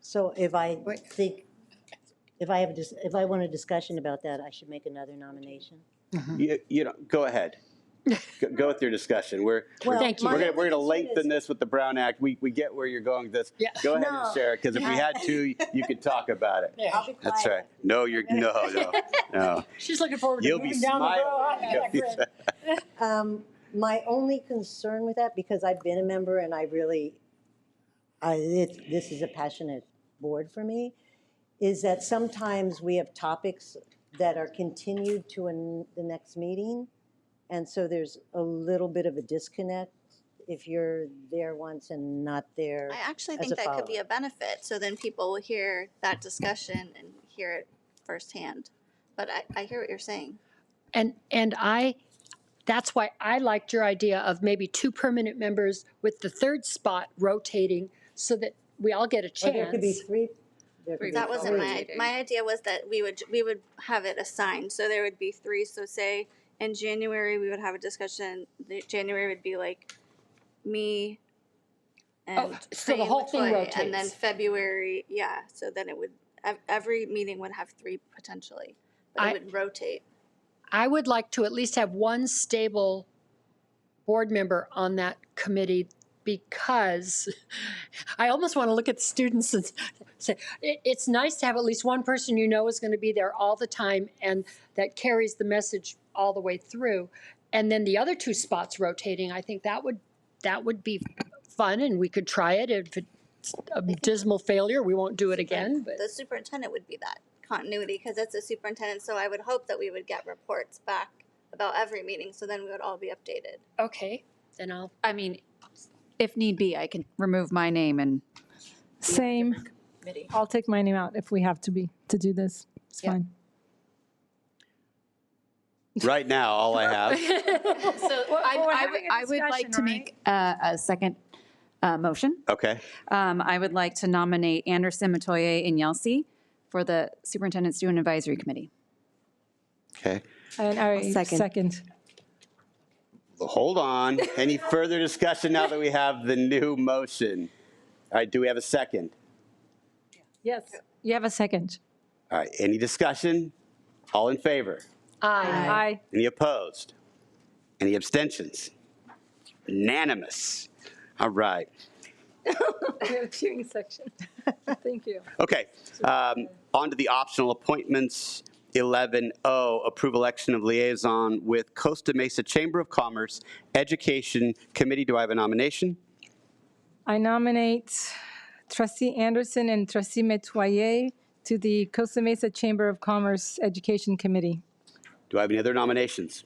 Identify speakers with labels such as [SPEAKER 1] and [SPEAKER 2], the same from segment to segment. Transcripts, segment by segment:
[SPEAKER 1] So if I
[SPEAKER 2] Wait.
[SPEAKER 1] think, if I have, a dis- if I want a discussion about that, I should make another nomination?
[SPEAKER 3] You, you know, go ahead. Go- Go with your discussion. We're,
[SPEAKER 1] Well,
[SPEAKER 4] Thank you.
[SPEAKER 1] my
[SPEAKER 3] we're gonna, we're gonna
[SPEAKER 1] concern
[SPEAKER 3] lengthen
[SPEAKER 1] is-
[SPEAKER 3] this with the Brown Act. We, we get where you're going with this.
[SPEAKER 4] Yeah.
[SPEAKER 3] Go ahead and
[SPEAKER 1] No.
[SPEAKER 3] share it, because if we had two, you could talk about it.
[SPEAKER 1] I'll be
[SPEAKER 3] That's right.
[SPEAKER 1] quiet.
[SPEAKER 3] No, you're, no, no, no.
[SPEAKER 4] She's looking forward to
[SPEAKER 3] You'll be
[SPEAKER 4] moving down the road.
[SPEAKER 3] smiling. You'll be smiling.
[SPEAKER 1] Um, my only concern with that, because I've been a member and I really, I, it, this is a passionate board for me, is that sometimes we have topics that are continued to an, the next meeting. And so there's a little bit of a disconnect if you're there once and not there.
[SPEAKER 5] I actually
[SPEAKER 1] as
[SPEAKER 5] think
[SPEAKER 1] a
[SPEAKER 5] that could be a
[SPEAKER 1] follow-up.
[SPEAKER 5] benefit, so then people will hear that discussion and hear it firsthand. But I, I hear what you're saying.
[SPEAKER 4] And, and I, that's why I liked your idea of maybe two permanent members with the third spot rotating so that we all get a
[SPEAKER 1] Or there could be
[SPEAKER 4] chance.
[SPEAKER 1] three. there could be
[SPEAKER 5] That wasn't
[SPEAKER 1] three.
[SPEAKER 5] my, my idea was that we would, we would have it assigned, so there would be three, so say in January, we would have a discussion, the, January would be like me and
[SPEAKER 4] Oh, so the
[SPEAKER 5] Crane
[SPEAKER 4] whole
[SPEAKER 5] which
[SPEAKER 4] thing
[SPEAKER 5] way, And then
[SPEAKER 4] rotates.
[SPEAKER 5] February, yeah, so then it would, ev- every meeting would have three potentially, but
[SPEAKER 4] I-
[SPEAKER 5] it would rotate.
[SPEAKER 4] I would like to at least have one stable board member on that committee because I almost want to look at the students and say, it, it's nice to have at least one person you know is going to be there all the time and that carries the message all the way through. And then the other two spots rotating, I think that would, that would be fun and we could try it. If it's a dismal failure, we won't do it again, but.
[SPEAKER 5] the superintendent would be that continuity because that's the superintendent. So I would hope that we would get reports back about every meeting. So then we would all be updated.
[SPEAKER 4] Okay, then I'll,
[SPEAKER 6] I mean, if need be, I can remove my name and
[SPEAKER 7] Same. I'll take my name out if we have to be, to do this. It's
[SPEAKER 4] Yeah.
[SPEAKER 7] fine.
[SPEAKER 3] Right now, all I have.
[SPEAKER 6] so
[SPEAKER 7] we're
[SPEAKER 6] I, I would,
[SPEAKER 7] having a
[SPEAKER 6] I would like
[SPEAKER 7] discussion,
[SPEAKER 6] to make a, a second uh, motion.
[SPEAKER 3] Okay.
[SPEAKER 6] Um, I would like to nominate Anderson, Matoye, and Yelsey for the Superintendent Student Advisory Committee.
[SPEAKER 3] Okay.
[SPEAKER 7] And I second.
[SPEAKER 3] Hold on. Any further discussion now that we have the new motion? All right, do we have a second?
[SPEAKER 7] Yes, you have a second.
[SPEAKER 3] All right, any discussion? All in favor?
[SPEAKER 4] I,
[SPEAKER 7] Aye.
[SPEAKER 3] Any opposed? Any abstentions? Unanimous. All right.
[SPEAKER 7] Queuing section. Thank you.
[SPEAKER 3] Okay, um, on to the optional appointments. 11O, approve election of liaison with Costa Mesa Chamber of Commerce Education Committee. Do I have a nomination?
[SPEAKER 7] I nominate trustee Anderson and trustee Metoyer to the Costa Mesa Chamber of Commerce Education Committee.
[SPEAKER 3] Do I have any other nominations?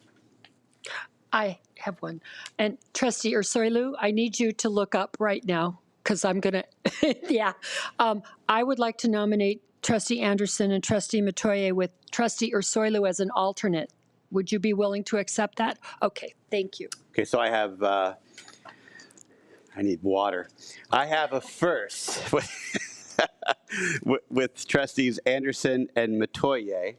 [SPEAKER 4] I have one. And trustee Ursulou, I need you to look up right now because I'm gonna, yeah. Um, I would like to nominate trustee Anderson and trustee Matoye with trustee Ursulou as an alternate. Would you be willing to accept that? Okay, thank you.
[SPEAKER 3] Okay, so I have, uh, I need water. I have a first with- with- with trustees Anderson and Matoye.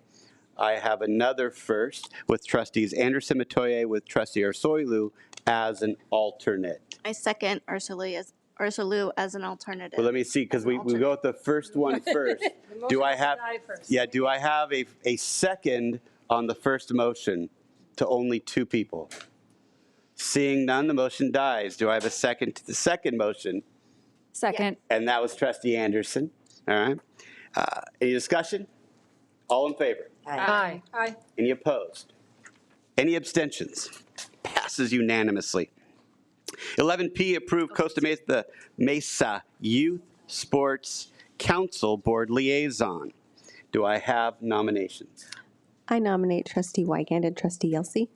[SPEAKER 3] I have another first with trustees Anderson, Matoye, with trustee Arsoilu as an alternate.
[SPEAKER 5] I second Ursula as Ursula as an alternative.
[SPEAKER 3] Well, let me see, because we, we go with the first one first. Do I have, yeah, do I have a, a second on the first motion to only two people? Seeing none, the motion dies. Do I have a second to the second motion?
[SPEAKER 6] Second.
[SPEAKER 3] And that was trustee Anderson, all right? Uh, Any discussion? All in favor?
[SPEAKER 4] Aye.
[SPEAKER 7] Aye.
[SPEAKER 3] Any opposed? Any abstentions? Passes unanimously. 11P, approve Costa Mesa, the Mesa Youth Sports Council Board Liaison. Do I have nominations?
[SPEAKER 8] I nominate trustee Wigand and trustee Yelsey.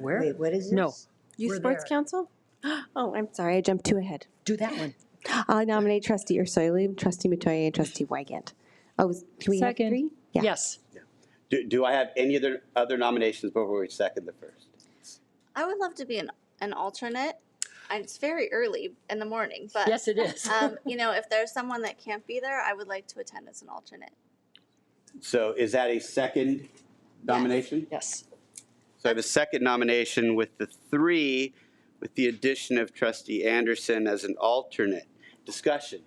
[SPEAKER 4] Where?
[SPEAKER 1] Wait, what is this?
[SPEAKER 4] No.
[SPEAKER 8] Youth
[SPEAKER 4] We're
[SPEAKER 8] Sports
[SPEAKER 4] there.
[SPEAKER 8] Council? Oh, I'm sorry, I jumped two ahead.
[SPEAKER 4] Do that one.
[SPEAKER 8] I nominate trustee Ursulou, trustee Matoye, and trustee Wigand. Oh, is- can we have
[SPEAKER 7] Second.
[SPEAKER 8] three? Yeah.
[SPEAKER 4] Yes.
[SPEAKER 3] Do, do I have any other, other nominations before we second the first?
[SPEAKER 5] I would love to be an, an alternate. And it's very early in the morning, but
[SPEAKER 4] Yes, it is.
[SPEAKER 5] um, you know, if there's someone that can't be there, I would like to attend as an alternate.
[SPEAKER 3] So is that a second nomination?
[SPEAKER 4] Yes.
[SPEAKER 3] So I have a second nomination with the three, with the addition of trustee Anderson as an alternate. Discussion?